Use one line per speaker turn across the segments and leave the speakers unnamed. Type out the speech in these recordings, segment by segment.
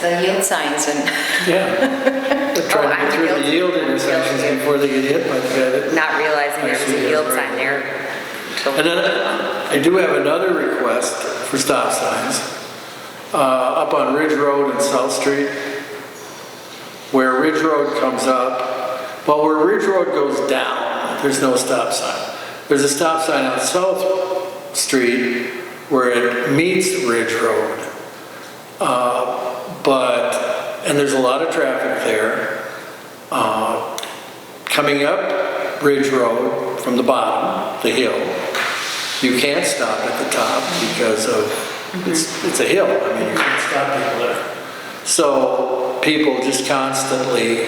the yield signs and
Yeah. They're trying
Oh,
to
I'm
get through the
guilty.
yield intersections before they get hit like that.
not realizing there was a yield sign there.
And then I do have another request for stop signs, uh, up on Ridge Road and South Street, where Ridge Road comes up, well, where Ridge Road goes down, there's no stop sign. There's a stop sign on South Street where it meets Ridge Road. Uh, But, and there's a lot of traffic there. Uh, Coming up Ridge Road from the bottom, the hill, you can't stop at the top because of, it's, it's a hill. I mean, you can't stop people there. So people just constantly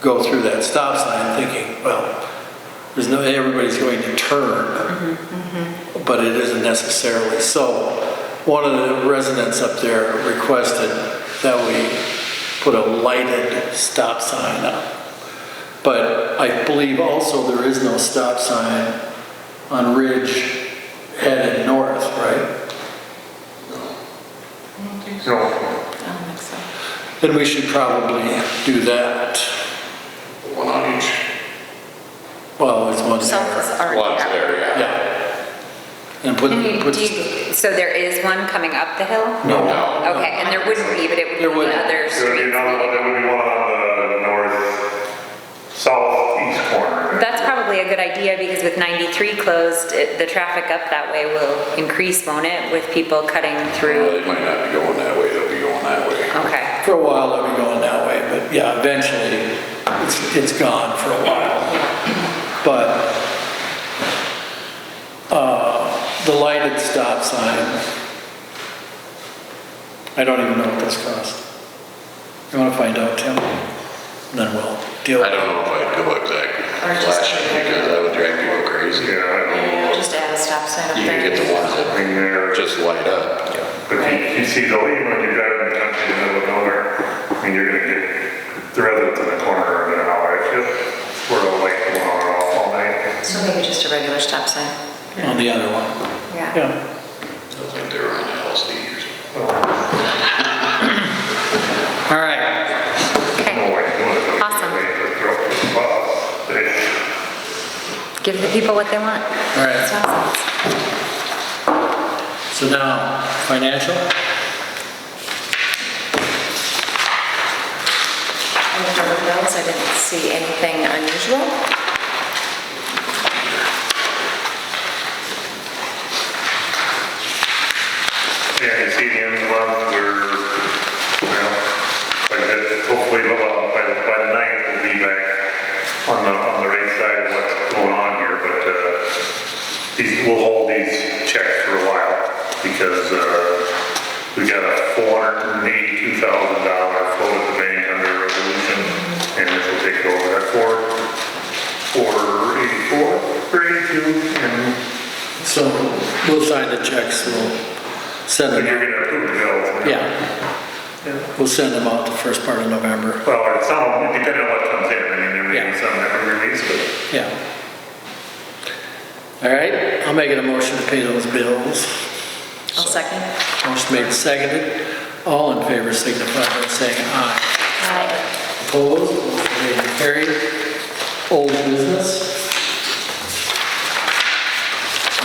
go through that stop sign thinking, well, there's no, everybody's going to turn, but it isn't necessarily. So one of the residents up there requested that we put a lighted stop sign up. But I believe also there is no stop sign on Ridge headed north, right?
No,
I don't think so.
Then we should probably do that.
one on each.
Well, it's one
South
there.
is already
One's
out.
there, yeah.
Yeah. And put,
Can you,
put,
do you, so there is one coming up the hill?
No.
No.
Okay, and there wouldn't be, but it would
There
be the
wouldn't.
other
There would be
street.
another one, there would be one on the north, southeast corner.
That's probably a good idea because with 93 closed, it- the traffic up that way will increase, won't it, with people cutting
Well,
through?
they might not be going that way, they'll be going that way.
Okay,
for a while, they'll be going that way, but yeah, eventually, it's, it's gone for a while. But, uh, the lighted stop sign, I don't even know what this cost. You wanna find out, Tim? Then we'll deal.
I don't know if I'd go exactly
Or just-
flashing because that would drive people crazy.
Yeah, I
Yeah, Just add a stop sign up
You
there.
can get the ones
don't think
that
there,
just light up.
but you, you see the lead when you're driving the country in the middle of nowhere, I mean, you're gonna get, the residents in the corner in an hour, I feel, we're all like, one hour off all night.
So maybe just a regular stop sign.
On the other one.
Yeah.
Yeah.
I think they were on LSD or something.
All right.
okay.
No way, no way.
Awesome.
They throw up the bus, they-
Give the people what they want.
All right.
That's awesome.
So now, financial?
I looked over the bills, I didn't see anything unusual.
Yeah, you see the end of the month, we're, well, like, I said, hopefully, by, the- by the- by the ninth, we'll be back on the, on the right side of what's going on here, but, uh, these, we'll hold these checks for a while, because, uh, we got a four hundred and eighty-two thousand dollar flow at the bank under a resolution, and this will take over that four, four eighty-four, or eighty-two, and
So we'll sign the checks, we'll send
then
them.
you're gonna approve the bills.
Yeah. We'll send them out the first part of November.
Well, or some, depending on what comes in, I mean, there may
Yeah.
be some that we release, but
Yeah. All right, I'll make it a motion to pay those bills.
I'll second.
Motion made, seconded. All in favor signify by saying aye.
Aye.
Opposed, motion made and carried. Old business?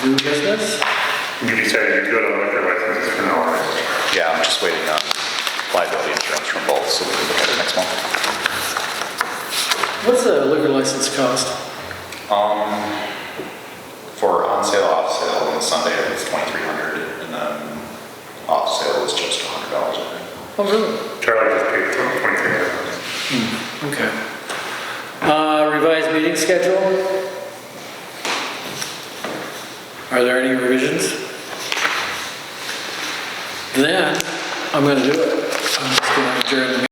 New business?
you decided you're good on liquor licenses for now, right?
Yeah, I'm just waiting on liability insurance from both, so we can look at it next month.
What's a liquor license cost?
Um, for on sale, off sale, on Sunday it was twenty-three hundred, and then off sale was just hundred dollars, I think.
Oh, really?
Charlie just paid for
Okay.
twenty-three hours.
Uh, Revised meeting schedule? Are there any revisions? Then, I'm gonna do it. I'm just gonna adjourn the meeting.